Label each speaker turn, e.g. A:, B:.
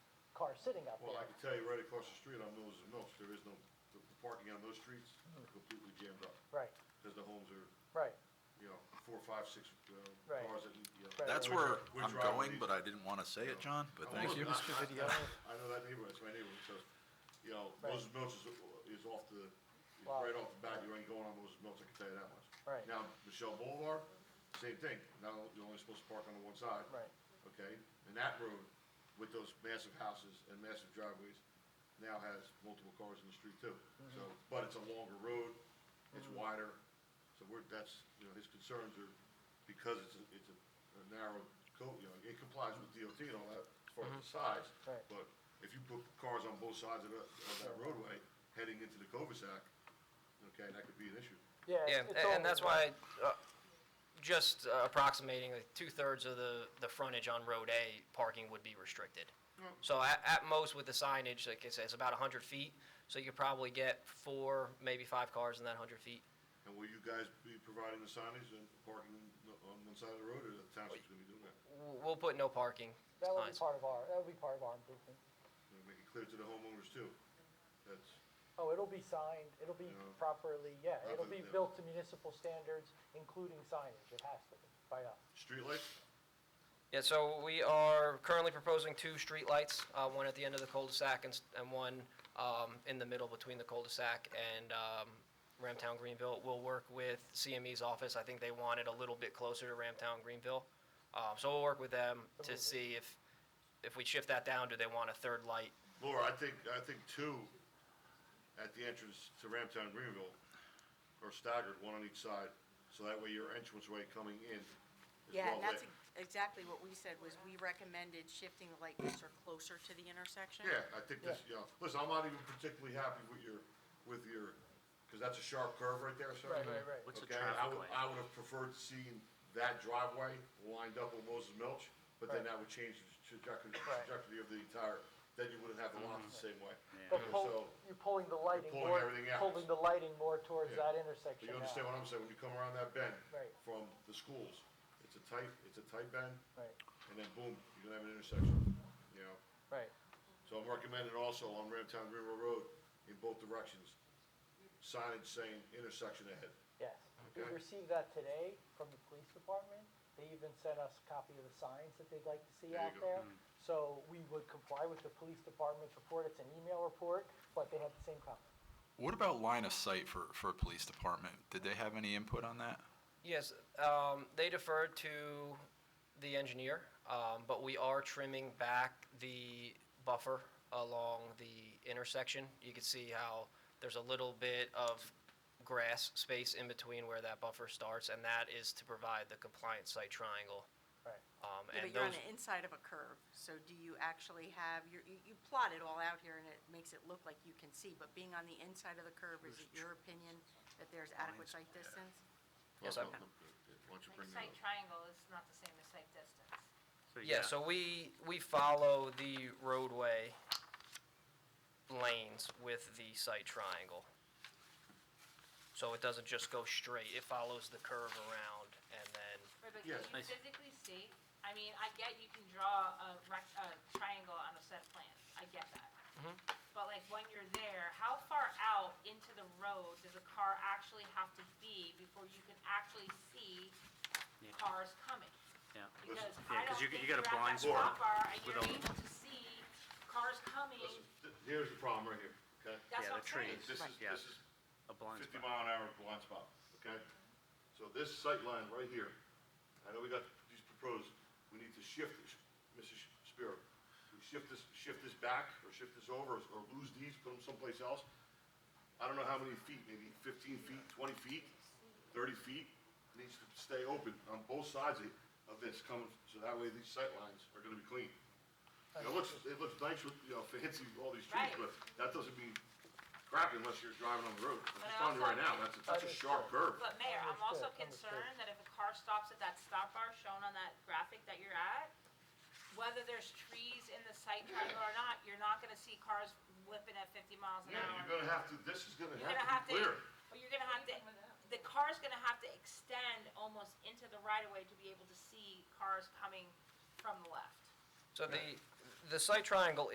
A: sitting out
B: Well, I
A: there.
B: can tell you right across the street on Mills and Mills, there is no, the parking on those streets are completely jammed up.
A: Right,
B: Because the homes are,
A: right,
B: you know, four, five, six uh,
A: Right.
B: cars that, need, you know.
A: Right.
C: That's
B: we're-
C: where
B: we're
C: I'm
B: driving
C: going,
B: these-
C: but I didn't want to say it, John, but
B: Oh,
C: thank
B: look,
C: you.
B: I-
D: Mr.
B: I-
D: Vidiello.
B: I know that neighborhood, it's my neighborhood, so, you know,
A: Right.
B: Moses Mills is, is off the, is
A: Wow.
B: right off the bat, you ain't going on Moses Mills, I can tell you that much.
A: Right.
B: Now, Michelle Boulevard, same thing, now you're only supposed to park on the one side.
A: Right.
B: Okay, and that road, with those massive houses and massive driveways, now has multiple cars in the street too. So, but it's a longer road, it's wider, so we're, that's, you know, his concerns are, because it's, a- it's a- a narrow coat, you know, it complies with DOT and all that, as far as the size.
A: Right.
B: But if you put cars on both sides of that, of that roadway, heading into the cul-de-sac, okay, that could be an issue.
A: yeah.
E: Yeah,
A: it's
E: a- and
A: all-
E: that's why, uh, just uh, approximating, like, two-thirds of the, the frontage on Road A, parking would be restricted. So at, at most with the signage, like I said, it's about 100 feet, so you could probably get four, maybe five cars in that 100 feet.
B: And will you guys be providing the signage and parking on one side of the road, or the township's gonna be doing that?
E: W- We'll put no parking
A: That would be
E: signs.
A: part of our, that would be part of our improvement.
B: You know, Make it clear to the homeowners too, that's,
A: Oh, it'll be signed, it'll be
B: Yeah.
A: properly, yeah, it'll
B: Properly,
A: be
B: yeah.
A: built to municipal standards, including signage, it has to be, by us.
B: streetlights,
E: Yeah, so we are currently proposing two streetlights, uh, one at the end of the cul-de-sac and, s- and one, um, in the middle between the cul-de-sac and, um, Ramtown Greenville. We'll work with CME's office. I think they want it a little bit closer to Ramtown Greenville. Um, so we'll work with them to see if, if we shift that down, do they want a third light?
B: Laura, I think, I think two at the entrance to Ramtown Greenville are staggered, one on each side, so that way your entranceway coming in is
F: Yeah,
B: well
F: and that's
B: lit.
F: exactly what we said, was we recommended shifting the light fixture closer to the intersection.
B: Yeah, I think this, you know, listen, I'm not even particularly happy with your, with your, because that's a sharp curve right there, sir.
A: Right, right, right.
D: What's a
B: Okay, I
D: traffic
B: would,
D: light?
B: I would have preferred seeing that driveway lined up with Moses Milch, but then that would change the trajectory,
A: Right.
B: trajectory of the entire, then you wouldn't have the lots
D: Mm-hmm.
B: the same way.
A: But
B: Okay,
A: pull,
B: so-
A: you're pulling the lighting
B: pulling
A: more,
B: everything out.
A: pulling the lighting more towards
B: Yeah.
A: that intersection
B: But you understand
A: now.
B: what I'm saying, when you come around that bend
A: Right.
B: from the schools, it's a tight, it's a tight bend,
A: Right,
B: and then boom, you're gonna have an intersection, you know?
A: right,
B: So I'm recommending also on Ramtown River Road, in both directions, signage saying intersection ahead.
A: yes. We
B: Okay.
A: received that today from the police department, they even sent us a copy of the signs that they'd like to see
B: There you
A: out
B: go. Mm.
A: there. So we would comply with the police department's report, it's an email report, but they had the same comment.
C: What about line of sight for, for a police department? Did they have any input on that?
E: Yes, um, they deferred to the engineer, um, but we are trimming back the buffer along the intersection. You can see how there's a little bit of grass space in between where that buffer starts, and that is to provide the compliance site triangle.
A: Right.
E: Um,
F: Yeah, But
E: and
F: you're on
E: those,
F: the inside of a curve, so do you actually have, your- you you plot it all out here and it makes it look like you can see, but being on the inside of the curve, is it your opinion that there's adequate sight distance?
E: Yes, I-
B: Why don't you
G: Like,
B: bring that
G: Site
B: up?
G: triangle is not the same as site distance.
E: yeah, so we, we follow the roadway lanes with the site triangle. So it doesn't just go straight, it follows the curve around and then
G: Right, but
B: Yes.
G: can you physically see? I mean, I get you can draw a rec, a triangle on a set of plans, I get that.
D: Mm-hmm.
G: But like when you're there, how far out into the road does a car actually have to be before you can actually see
D: Yeah.
G: cars coming?
D: Yeah.
G: Because
B: Yeah,
G: I
D: 'cause
G: don't
D: you-
G: think
D: you
G: you're
D: got
G: at
D: a
G: that
D: blind spot
G: stop bar and
D: with
G: you're
D: a-
G: able to see cars coming,
B: Listen, th- Here's the problem right here, okay?
G: that's
D: Yeah,
G: what I'm
D: the
G: saying.
D: trees.
B: This is,
D: Yeah.
B: this is
D: A blind
B: 50
D: spot.
B: mile an hour blind spot, okay? So this sight line right here, I know we got these proposed, we need to shift this, Mrs. Spear. We shift this, shift this back, or shift this over, or lose these, put them someplace else. I don't know how many feet, maybe 15 feet, 20 feet, 30 feet, needs to stay open on both sides of- of this coming, so that way these sight lines are gonna be clean. You know, It looks, it looks nice with, you know, fancy, with all these trees,
G: Right.
B: but that doesn't mean crap unless you're driving on the road. I'm
G: But
B: just telling you right
G: also-
B: now, that's, a- that's a sharp curve.
G: But Mayor, I'm also
A: Oh, Understood, understood.
G: concerned that if a car stops at that stop bar shown on that graphic that you're at, whether there's trees in the sight triangle or not, you're not gonna see cars whipping at fifty miles an
B: Yeah,
G: hour.
B: you're gonna have to, this is gonna
G: You're gonna have
B: have to be
G: to,
B: clear.
G: but you're gonna have to, the car's gonna have to extend almost into the right of way to be able to see cars coming from the left.
E: So the, the site triangle